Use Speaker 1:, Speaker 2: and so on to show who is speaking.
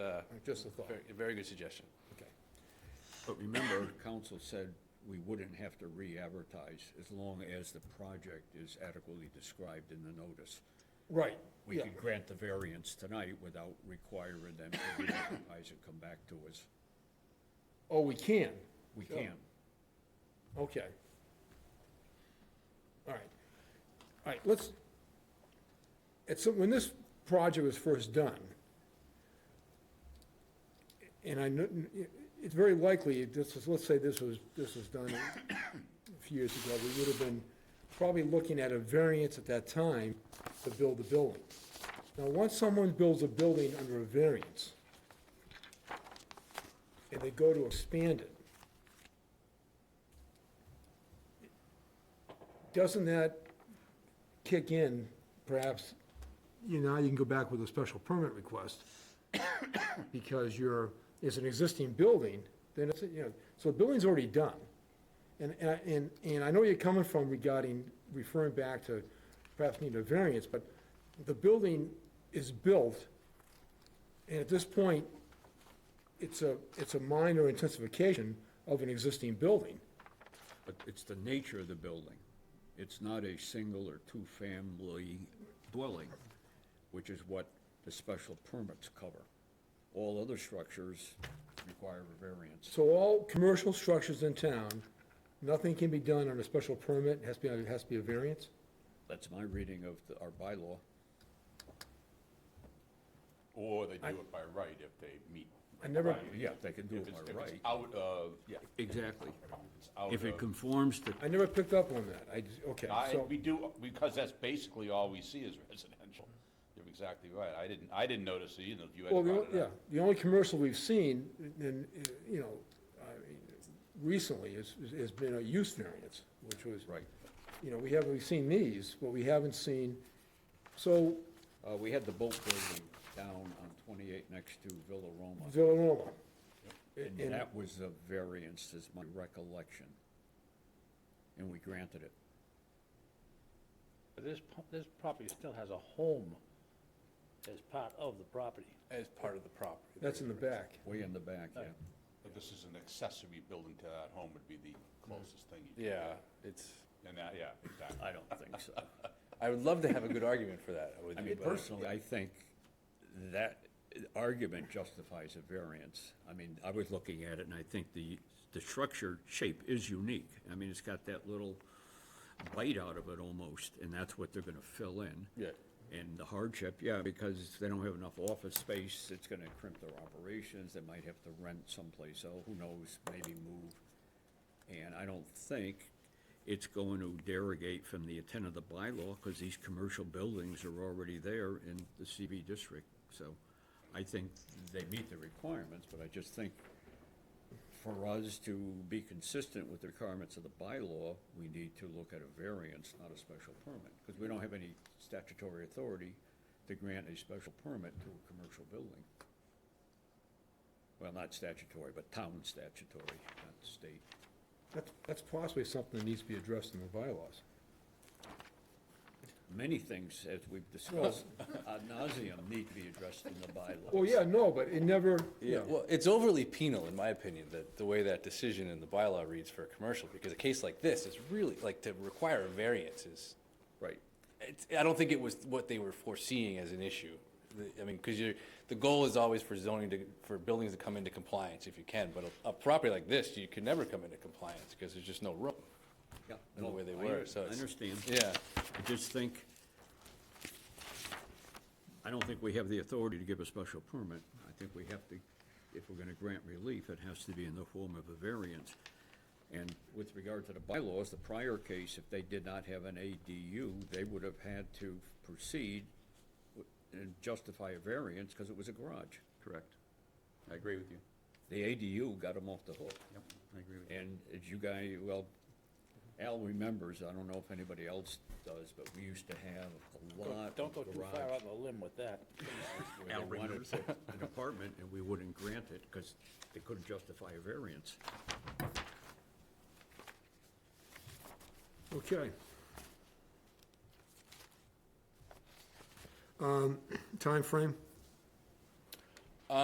Speaker 1: uh,
Speaker 2: Just a thought,
Speaker 1: very- very good suggestion.
Speaker 2: okay.
Speaker 3: But remember, council said we wouldn't have to re-advertise as long as the project is adequately described in the notice.
Speaker 2: Right,
Speaker 3: We
Speaker 2: yeah,
Speaker 3: could grant the variance tonight without requiring them to re-advertise and come back to us.
Speaker 2: oh, we can,
Speaker 3: We
Speaker 2: Sure.
Speaker 3: can.
Speaker 2: okay. All right, all right, let's, at some, when this project was first done, and I know, it's very likely, this is, let's say this was, this was done a few years ago, we would have been probably looking at a variance at that time to build the building. Now, once someone builds a building under a variance, and they go to expand it, doesn't that kick in, perhaps, you know, you can go back with a special permit request, because you're, it's an existing building, then it's, you know, so the building's already done. And, and, I- and- and I know where you're coming from regarding referring back to perhaps need a variance, but the building is built, and at this point, it's a, it's a minor intensification of an existing building.
Speaker 3: But it's the nature of the building. It's not a single or two-family dwelling, which is what the special permits cover. All other structures require a variance.
Speaker 2: So all commercial structures in town, nothing can be done on a special permit, it has to be, it has to be a variance?
Speaker 3: That's my reading of the- our bylaw.
Speaker 1: Or they do it by right if they meet.
Speaker 2: I never-
Speaker 1: by-
Speaker 3: Yeah, they can do
Speaker 1: If
Speaker 3: it
Speaker 1: it's-
Speaker 3: by
Speaker 1: if it's
Speaker 3: right.
Speaker 1: Out of, yeah,
Speaker 3: Exactly.
Speaker 1: if it's out
Speaker 3: If it
Speaker 1: of.
Speaker 3: conforms to,
Speaker 2: I never picked up on that, I, just- okay,
Speaker 1: I,
Speaker 2: so,
Speaker 1: we do, because that's basically all we see is residential. You're exactly right. I didn't, I didn't notice it either. You had
Speaker 2: well, the,
Speaker 1: brought
Speaker 2: on-
Speaker 1: it
Speaker 2: yeah,
Speaker 1: up.
Speaker 2: the only commercial we've seen, and, you know, I mean, recently is, is- has been a use variance, which was.
Speaker 3: right.
Speaker 2: You know, we have, we've seen these, but we haven't seen, so,
Speaker 3: Uh, we had the boat building down on 28 next to Villa Roma,
Speaker 2: Villa Roma.
Speaker 3: and
Speaker 2: And-
Speaker 3: that was a variance, is my recollection. And we granted it.
Speaker 4: But This, po- this property still has a home as part of the property.
Speaker 5: As part of the property.
Speaker 2: That's in the back.
Speaker 3: Way in the back, yeah.
Speaker 1: But this is an accessory building to that home would be the closest thing. you-
Speaker 5: Yeah, it's,
Speaker 1: And that, yeah, exactly.
Speaker 3: I don't think so.
Speaker 5: I would love to have a good argument for that. with
Speaker 3: I
Speaker 5: you,
Speaker 3: mean,
Speaker 5: but-
Speaker 3: personally, I think that argument justifies a variance. I mean, I was looking at it, and I think the, the structure shape is unique. I mean, it's got that little bite out of it almost, and that's what they're gonna fill in.
Speaker 5: Yeah.
Speaker 3: And the hardship, yeah, because they don't have enough office space, it's gonna crimp their operations, they might have to rent someplace else, who knows, maybe move. And I don't think it's going to derogate from the intent of the bylaw, because these commercial buildings are already there in the CB district. So I think they meet the requirements, but I just think for us to be consistent with the requirements of the bylaw, we need to look at a variance, not a special permit, because we don't have any statutory authority to grant a special permit to a commercial building. Well, not statutory, but town statutory, not state.
Speaker 2: That's, that's possibly something that needs to be addressed in the bylaws.
Speaker 3: Many things, as we've discussed ad nauseum, need to be addressed in the bylaws.
Speaker 2: Well, yeah, no, but it never,
Speaker 5: Yeah,
Speaker 2: yeah.
Speaker 5: well, it's overly penal, in my opinion, that the way that decision in the bylaw reads for a commercial, because a case like this is really, like, to require a variance is,
Speaker 3: Right.
Speaker 5: it's, I don't think it was what they were foreseeing as an issue. The- I mean, because you're, the goal is always for zoning to, for buildings to come into compliance if you can, but a, a property like this, you could never come into compliance, because there's just no room.
Speaker 3: Yeah,
Speaker 5: The
Speaker 3: no,
Speaker 5: way they
Speaker 3: I
Speaker 5: were,
Speaker 3: un-
Speaker 5: so
Speaker 3: I
Speaker 5: it's-
Speaker 3: understand.
Speaker 5: Yeah.
Speaker 3: I just think, I don't think we have the authority to give a special permit. I think we have to, if we're gonna grant relief, it has to be in the form of a variance. And with regard to the bylaws, the prior case, if they did not have an ADU, they would have had to proceed w- and justify a variance, because it was a garage.
Speaker 1: Correct. I agree with you.
Speaker 3: The ADU got them off the hook.
Speaker 1: Yep, I agree with you.
Speaker 3: And as you guys, well, Al remembers, I don't know if anybody else does, but we used to have a lot of
Speaker 4: Don't go too far
Speaker 3: garage.
Speaker 4: out on a limb with that.
Speaker 3: where They wanted to put an apartment and we wouldn't grant it because they couldn't justify a variance.
Speaker 2: Okay. Um, Timeframe?